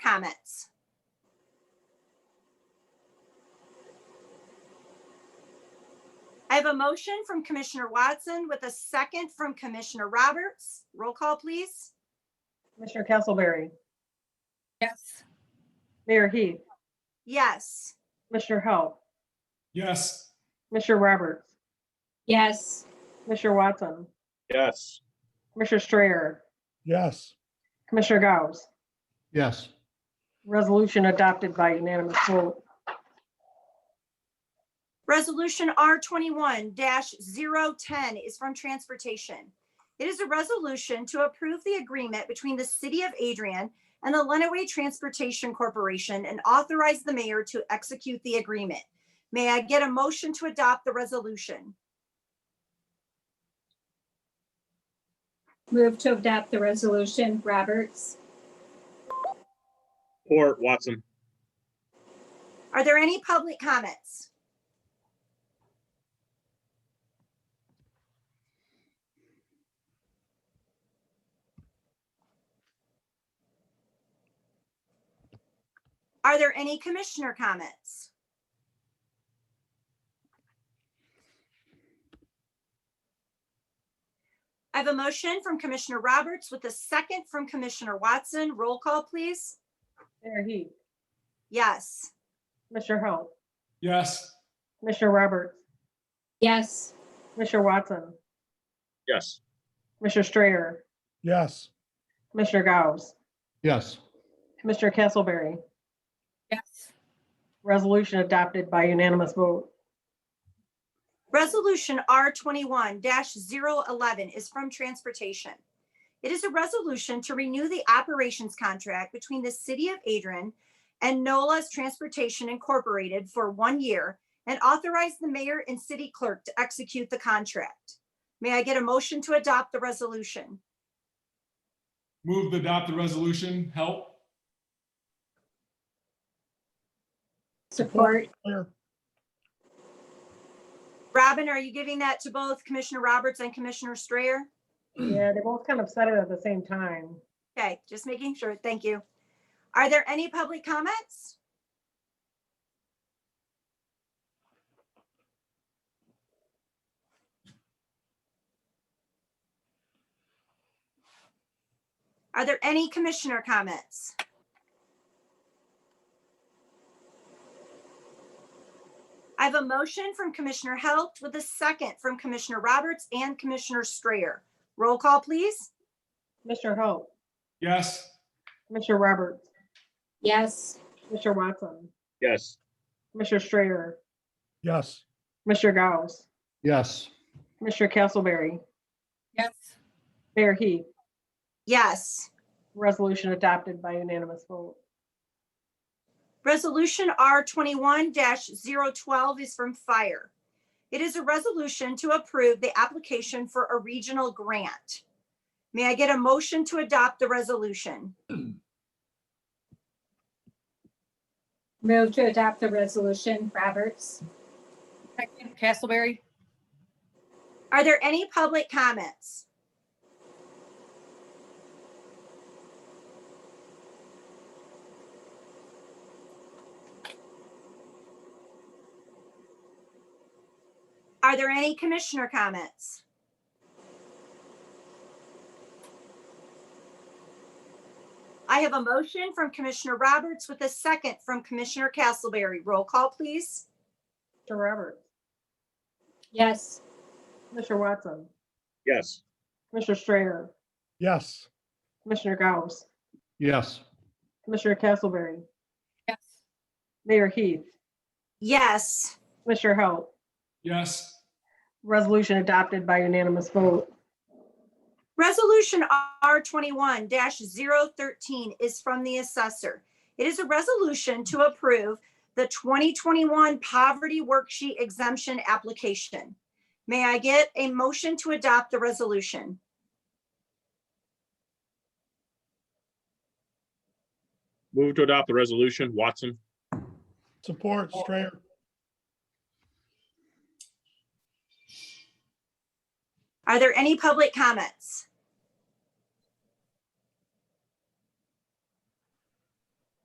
comments? I have a motion from Commissioner Watson with a second from Commissioner Roberts. Roll call, please. Commissioner Castleberry, Yes. Mayor Heath, Yes. Commissioner Hou, Yes. Commissioner Roberts, Yes. Commissioner Watson, Yes. Commissioner Strayer, Yes. Commissioner Gauss. Yes. Resolution adopted by unanimous vote. Resolution R twenty-one 10 is from Transportation. It is a resolution to approve the agreement between the City of Adrian and the Lenawee Transportation Corporation and authorize the mayor to execute the agreement. May I get a motion to adopt the resolution? Move to adopt the resolution. Roberts? Or Watson. Are there any public comments? Are there any commissioner comments? I have a motion from Commissioner Roberts with a second from Commissioner Watson. Roll call, please. Mayor Heath, Yes. Commissioner Hou, Yes. Commissioner Roberts, Yes. Commissioner Watson, Yes. Commissioner Strayer, Yes. Commissioner Gauss, Yes. Commissioner Castleberry. Yes. Resolution adopted by unanimous vote. Resolution R twenty-one 11 is from Transportation. It is a resolution to renew the operations contract between the City of Adrian and NOLA's Transportation Incorporated for one year and authorize the mayor and city clerk to execute the contract. May I get a motion to adopt the resolution? Move to adopt the resolution. Help. Support? Clear. Robin, are you giving that to both Commissioner Roberts and Commissioner Strayer? Yeah, they both kind of said it at the same time. Okay, just making sure. Thank you. Are there any public comments? Are there any commissioner comments? I have a motion from Commissioner Halt with a second from Commissioner Roberts and Commissioner Strayer. Roll call, please. Commissioner Hou, Yes. Commissioner Roberts, Yes. Commissioner Watson, Yes. Commissioner Strayer, Yes. Commissioner Gauss, Yes. Commissioner Castleberry, Yes. Mayor Heath, Yes. resolution adopted by unanimous vote. Resolution R twenty-one 12 is from Fire. It is a resolution to approve the application for a regional grant. May I get a motion to adopt the resolution? Move to adopt the resolution. Roberts? Second, Castleberry. Are there any public comments? Are there any commissioner comments? I have a motion from Commissioner Roberts with a second from Commissioner Castleberry. Roll call, please. Commissioner Roberts, Yes. Commissioner Watson, Yes. Commissioner Strayer, Yes. Commissioner Gauss, Yes. Commissioner Castleberry, Yes. Mayor Heath, Yes. Commissioner Hou, Yes. resolution adopted by unanimous vote. Resolution R twenty-one 13 is from the assessor. It is a resolution to approve the twenty twenty-one poverty worksheet exemption application. May I get a motion to adopt the resolution? Move to adopt the resolution. Watson. Support Strayer. Are there any public comments?